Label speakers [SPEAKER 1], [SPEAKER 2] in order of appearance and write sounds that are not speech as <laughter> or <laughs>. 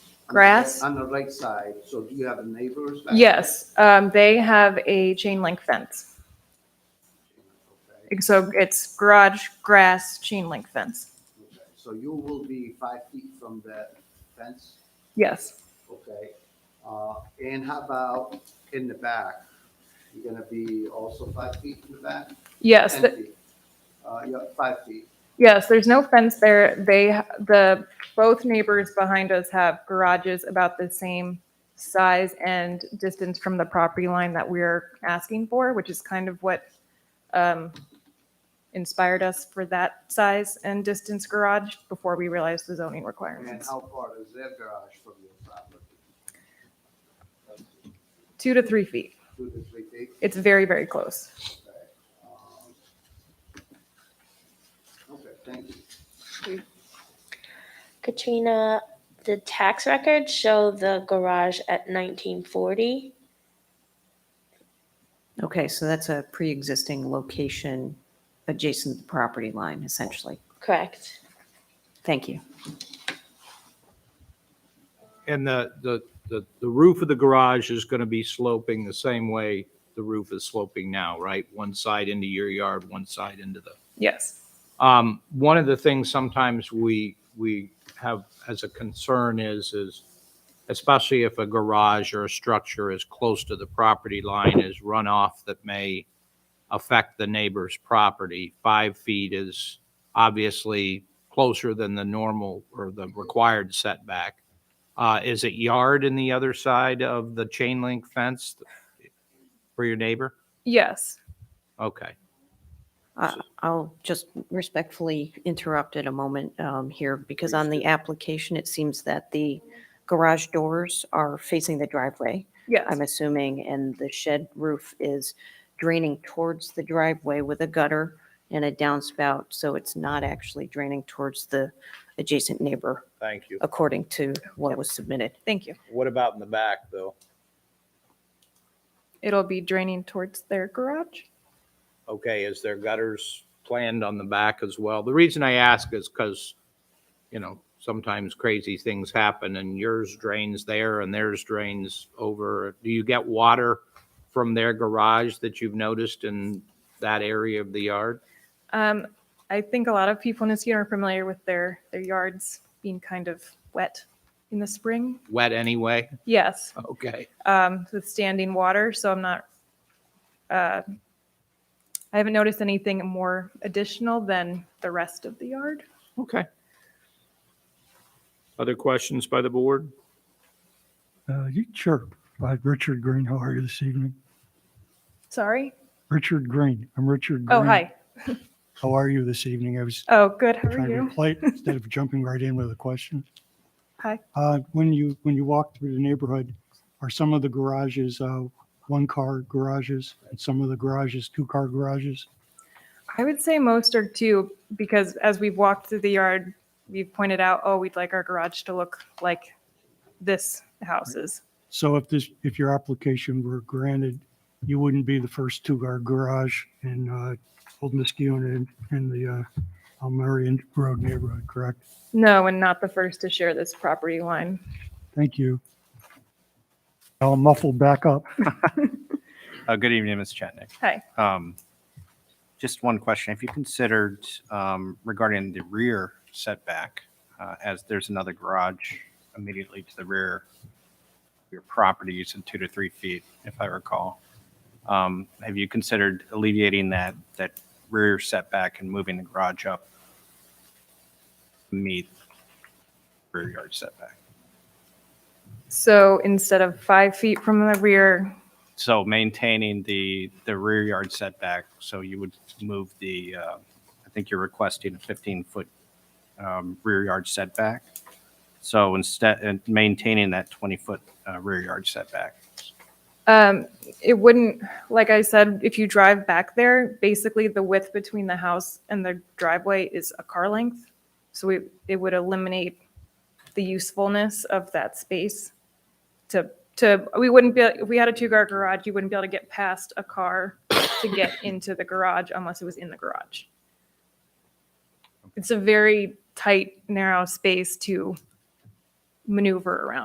[SPEAKER 1] grass.
[SPEAKER 2] On the right side, so do you have a neighbor's? back?
[SPEAKER 1] Yes, um, they have a chain link fence.
[SPEAKER 2] Okay,
[SPEAKER 1] So it's garage, grass, chain link fence.
[SPEAKER 2] okay. So you will be five feet from that fence,
[SPEAKER 1] Yes.
[SPEAKER 2] okay? Uh, and how about in the back? You're gonna be also five feet in the back?
[SPEAKER 1] Yes,
[SPEAKER 2] Ten
[SPEAKER 1] th-
[SPEAKER 2] feet. Uh, yeah, five feet,
[SPEAKER 1] yes, there's no fence there. They, ha- the, both neighbors behind us have garages about the same size and distance from the property line that we're asking for, which is kind of what, um, inspired us for that size and distance garage before we realized the zoning
[SPEAKER 2] and
[SPEAKER 1] requirements.
[SPEAKER 2] how far is their garage from your property?
[SPEAKER 1] Two to three feet.
[SPEAKER 2] Two to three feet?
[SPEAKER 1] It's very, very close.
[SPEAKER 2] Okay, um, Okay, thank you.
[SPEAKER 3] Katrina, the tax records show the garage at 1940.
[SPEAKER 4] Okay, so that's a pre-existing location adjacent to the property line, essentially.
[SPEAKER 3] Correct.
[SPEAKER 4] Thank you.
[SPEAKER 5] And the, the, the the roof of the garage is going to be sloping the same way the roof is sloping now, right? One side into your yard, one side into the
[SPEAKER 1] Yes.
[SPEAKER 5] Um, one of the things sometimes we, we have as a concern is, is especially if a garage or a structure is close to the property line is runoff that may affect the neighbor's property. Five feet is obviously closer than the normal or the required setback. Uh, is it yard in the other side of the chain link fence for your neighbor?
[SPEAKER 1] Yes.
[SPEAKER 5] Okay.
[SPEAKER 4] I- I'll just respectfully interrupt at a moment um, here because on the application, it seems that the garage doors are facing the driveway,
[SPEAKER 1] Yes.
[SPEAKER 4] I'm assuming, and the shed roof is draining towards the driveway with a gutter and a downspout, so it's not actually draining towards the adjacent neighbor,
[SPEAKER 5] Thank you.
[SPEAKER 4] according to what was submitted.
[SPEAKER 1] Thank you.
[SPEAKER 5] What about in the back though?
[SPEAKER 1] It'll be draining towards their garage.
[SPEAKER 5] okay, is there gutters planned on the back as well? The reason I ask is because, you know, sometimes crazy things happen and yours drains there and theirs drains over. Do you get water from their garage that you've noticed in that area of the yard?
[SPEAKER 1] Um, I think a lot of people in this unit are familiar with their, their yards being kind of wet in the spring.
[SPEAKER 5] Wet anyway? <laughs>
[SPEAKER 1] Yes,
[SPEAKER 5] Okay.
[SPEAKER 1] um, with standing water, so I'm not, uh, I haven't noticed anything more additional than the rest of the yard.
[SPEAKER 5] Okay. Other questions by the board?
[SPEAKER 6] Uh, you- Sure. Uh, Richard Green, how are you this evening?
[SPEAKER 1] Sorry.
[SPEAKER 6] Richard Green, I'm Richard Green.
[SPEAKER 1] Oh, hi.
[SPEAKER 6] How are you this evening? I was
[SPEAKER 1] Oh, good. How are
[SPEAKER 6] trying to be
[SPEAKER 1] you? <laughs>
[SPEAKER 6] polite instead of jumping right in with a question.
[SPEAKER 1] Hi.
[SPEAKER 6] Uh, When you, when you walk through the neighborhood, are some of the garages uh, one-car garages and some of the garages two-car garages?
[SPEAKER 1] I would say most are two because as we've walked through the yard, we've pointed out, oh, we'd like our garage to look like this house's.
[SPEAKER 6] So if this, if your application were granted, you wouldn't be the first two-car garage in uh, Old Muskegon and in the uh, Almerian Road neighborhood, correct?
[SPEAKER 1] No, and not the first to share this property line.
[SPEAKER 6] Thank you. I'll muffle back up.
[SPEAKER 7] Uh, Good evening, Ms. Chatnick.
[SPEAKER 1] Hi.
[SPEAKER 7] Um, Just one question. Have you considered um, regarding the rear setback, uh, as there's another garage immediately to the rear, of your property is in two to three feet, if I recall. Um, Have you considered alleviating that, that rear setback and moving the garage up to meet rear yard setback?
[SPEAKER 1] So instead of five feet from the rear,
[SPEAKER 7] So maintaining the, the rear yard setback, so you would move the, uh, I think you're requesting a 15-foot um, rear yard setback. So instead, and maintaining that 20-foot uh, rear yard setback.
[SPEAKER 1] um, it wouldn't, like I said, if you drive back there, basically the width between the house and the driveway is a car length. So it, it would eliminate the usefulness of that space to, to, we wouldn't be, if we had a two-car garage, you wouldn't be able to get past a car to get into the garage unless it was in the garage. It's a very tight, narrow space to maneuver around.